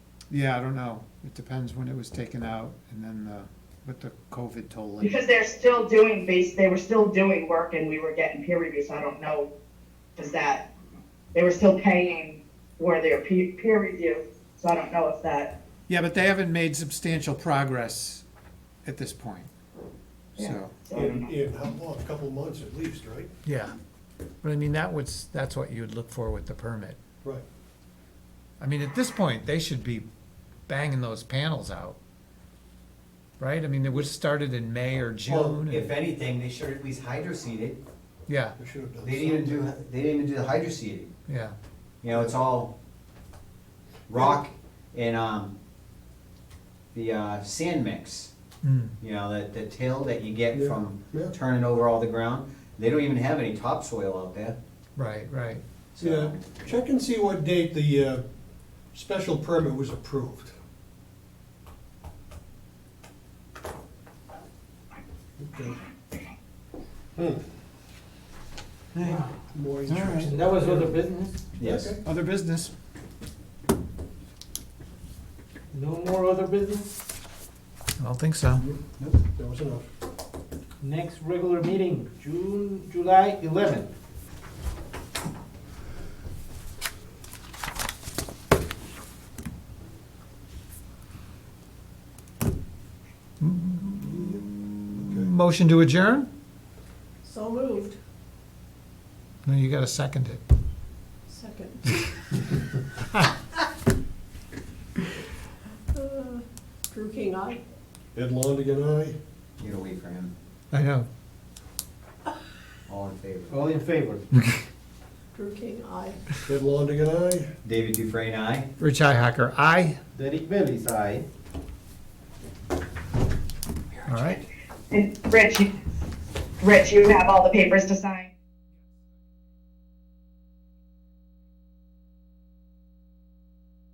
Yeah, I don't know. It depends when it was taken out and then the, what the COVID toll. in. Because they're still doing base, they were still doing work and we were getting peer reviews, I don't know, does that, they were still paying for their peer, peer review, so I don't know if that, Yeah, but they haven't made substantial progress at this point. Yeah. So, so I don't In, know. in how long? A couple months at least, right? Yeah, but I mean, that was, that's what you'd look for with the permit. Right. I mean, at this point, they should be banging those panels out. Right? I mean, it was started in May or June. Well, and- if anything, they should at least hydroseed it. Yeah, We should have done They didn't even something. do, they didn't even do the hydroseeding. yeah, You know, it's all rock and, um, the, uh, sand mix. mm, You know, that, the till that you get Yeah, from yeah. turning over all the ground. They don't even have any topsoil out there, right, right. Yeah, so. check and see what date the, uh, special permit was approved. Okay. More interesting. That was other business? Yes. Okay. other business. No more other business? I don't think so. Nope, that was enough. Next regular meeting, June, July eleventh. Motion to adjourn? So moved. No, you gotta second it. Second. Uh, Drew King, aye. Ed Longigan, aye. You gotta wait for him. I know. All in favor? All in favor? Drew King, aye. Ed Longigan, aye. David Dufresne, aye. Rich Hacker, aye. Derek Bellis, aye. All right. And Rich, you- Rich, you have all the papers to sign?